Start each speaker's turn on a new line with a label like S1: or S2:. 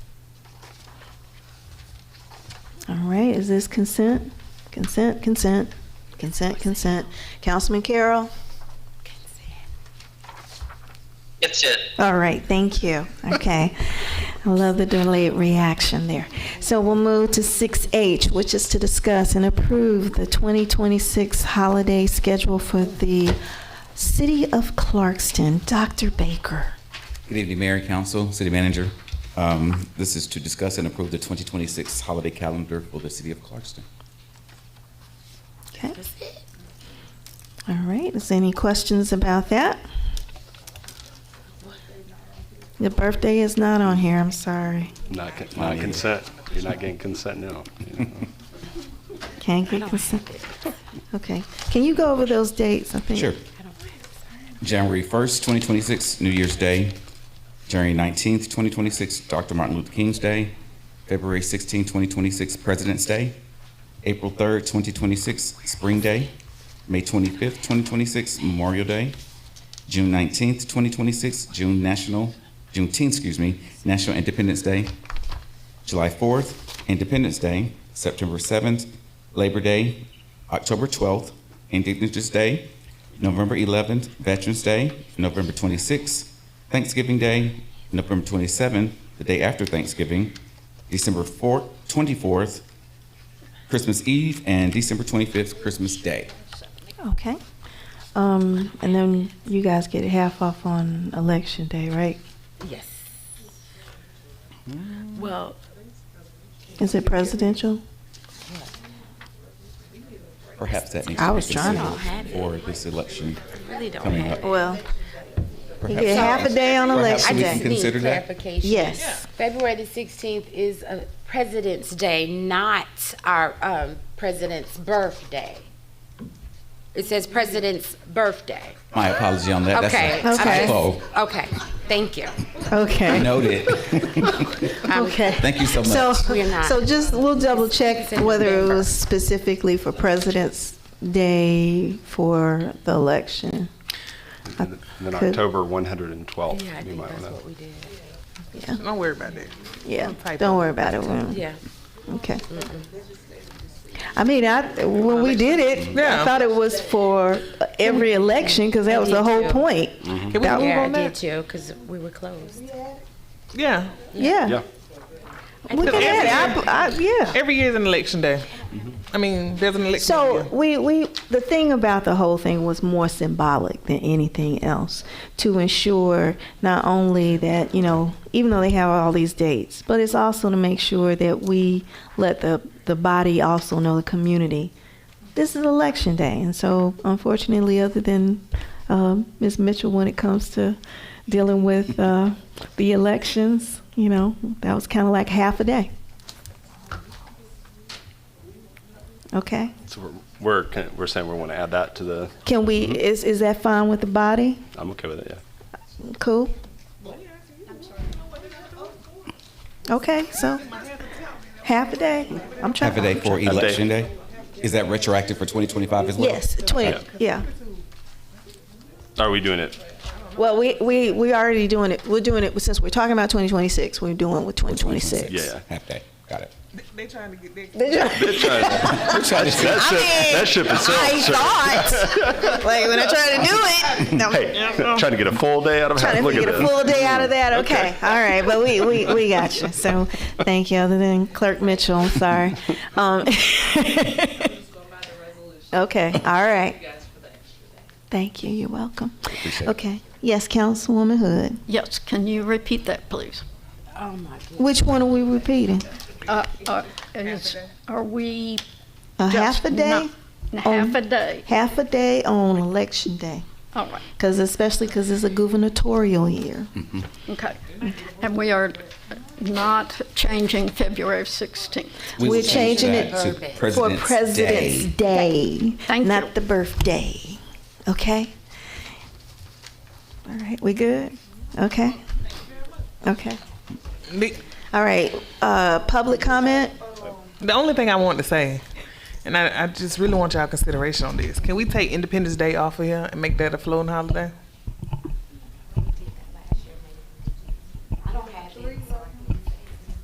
S1: All right, is this consent? Consent, consent, consent, consent. Councilman Carroll?
S2: It's it.
S1: All right, thank you. Okay. I love the delayed reaction there. So we'll move to 6H, which is to discuss and approve the 2026 holiday schedule for the City of Clarkston. Dr. Baker.
S3: Good evening, Mayor, Council, City Manager. Um, This is to discuss and approve the 2026 holiday calendar for the city of Clarkston.
S1: Okay. All right, is there any questions about that? The birthday is not on here, I'm sorry.
S4: Not, con-
S3: Not
S4: not
S3: yet.
S4: consent. You're not getting consent now. you know.
S1: Can't get consent. Okay, can you go over those dates, I think?
S3: Sure. January 1st, 2026, New Year's Day. January 19th, 2026, Dr. Martin Luther King's Day. February 16th, 2026, President's Day. April 3rd, 2026, Spring Day. May 25th, 2026, Memorial Day. June 19th, 2026, June National, Juneteenth, excuse me, National Independence Day. July 4th, Independence Day, September 7th, Labor Day, October 12th, Indigenous Day, November 11th, Veterans Day, November 26th, Thanksgiving Day, November 27th, the day after Thanksgiving, December 4th, 24th, Christmas Eve, and December 25th, Christmas Day.
S1: Okay. Um, and then you guys get half off on election day, right?
S5: Yes. Well,
S1: Is it presidential?
S3: Perhaps that needs
S1: I
S3: to be
S1: was trying to-
S3: considered for this election
S5: really don't
S3: coming
S5: have.
S3: up.
S1: Well, you
S3: Perhaps-
S1: get half a day on
S3: Perhaps
S1: election
S3: we
S1: day.
S3: can consider
S6: need
S3: that?
S6: Clarification.
S1: Yes.
S6: February the sixteenth is uh, President's Day, not our um, President's birthday. It says President's birthday.
S3: My apology on that. That's
S6: Okay.
S3: a-
S1: Okay.
S3: Oh,
S6: Okay, thank you. Um,
S1: Okay.
S3: noted.
S1: Okay.
S3: Thank you so much.
S1: So,
S6: We're not.
S1: so just, we'll double check
S6: It's in
S1: whether it
S6: November.
S1: was specifically for President's Day for the election.
S4: And then
S1: Uh, Could-
S4: October 112.
S5: Yeah, I
S4: you
S5: think
S4: might
S5: that's
S4: wanna-
S5: what we did.
S7: Don't worry about that.
S1: Yeah,
S7: Typo.
S1: don't worry about it. We'll-
S5: Yeah.
S1: Okay. I mean, I, when we did it, I
S7: Yeah.
S1: thought it was for every election because that was the whole
S6: too.
S1: point.
S7: Can we
S5: Oh,
S1: That-
S7: move
S6: Yeah, I
S7: on
S6: did
S7: that?
S6: too, because we were closed.
S7: Yeah.
S1: Yeah.
S4: Yeah.
S1: Look at
S7: Because
S1: that. I, I, yeah.
S7: Every year is an election day. I mean, there's an election.
S1: So
S7: every year.
S1: we, we the thing about the whole thing was more symbolic than anything else to ensure not only that you know even though they have all these dates, but it's also to make sure that we let the the body also know the community. This is election day, and so unfortunately, other than um, Ms. Mitchell, when it comes to dealing with uh, the elections, you know that was kind of like half a day. Okay.
S4: So we're- we're, con- we're saying we want to add that to the,
S1: Can we, is, is that fine with the body?
S4: I'm okay with it, yeah.
S1: Cool? Okay, so half a day. I'm trying.
S3: Half a day for
S4: day.
S3: election day? Is that retroactive for 2025 as well?
S1: Yes, 20, yeah.
S4: Are we doing it?
S1: Well, we, we, we already doing it, we're doing it, since we're talking about 2026, we're doing it with 2026.
S4: Yeah.
S3: Half day, got it.
S7: They trying to get that.
S4: That ship, that ship is
S1: I thought, like, when I tried to do it, I'm
S4: Hey, trying to get a full day out of
S1: trying
S4: it.
S1: to
S4: Look
S1: get
S4: at
S1: a full
S4: this.
S1: day out of that, okay, all right, but we, we, we got you. So, thank you, other than Clerk Mitchell, I'm sorry. Um, Okay, all right. Thank you, you're welcome.
S3: Appreciate it.
S1: Okay, yes, Councilwoman Hood.
S8: Yes, can you repeat that, please?
S5: Oh, my God.
S1: Which one are we repeating?
S8: Uh, uh, is- Are we?
S1: A
S8: just
S1: half a day?
S8: not-
S1: on-
S8: Half a day,
S1: Half a day on election day,
S8: all right,
S1: because especially because it's a gubernatorial year.
S8: okay. And we are not changing February 16th.
S3: We will
S1: We're
S3: change
S1: changing it
S3: that to
S1: for
S3: President's
S1: President's
S3: Day.
S1: Day,
S8: Thank
S1: not
S8: you.
S1: the birthday. Okay. All right, we good? Okay. Okay.
S7: The-
S1: All right. Uh, public comment.
S7: The only thing I want to say, and I, I just really want y'all consideration on this. Can we take Independence Day off of here and make that a floating holiday?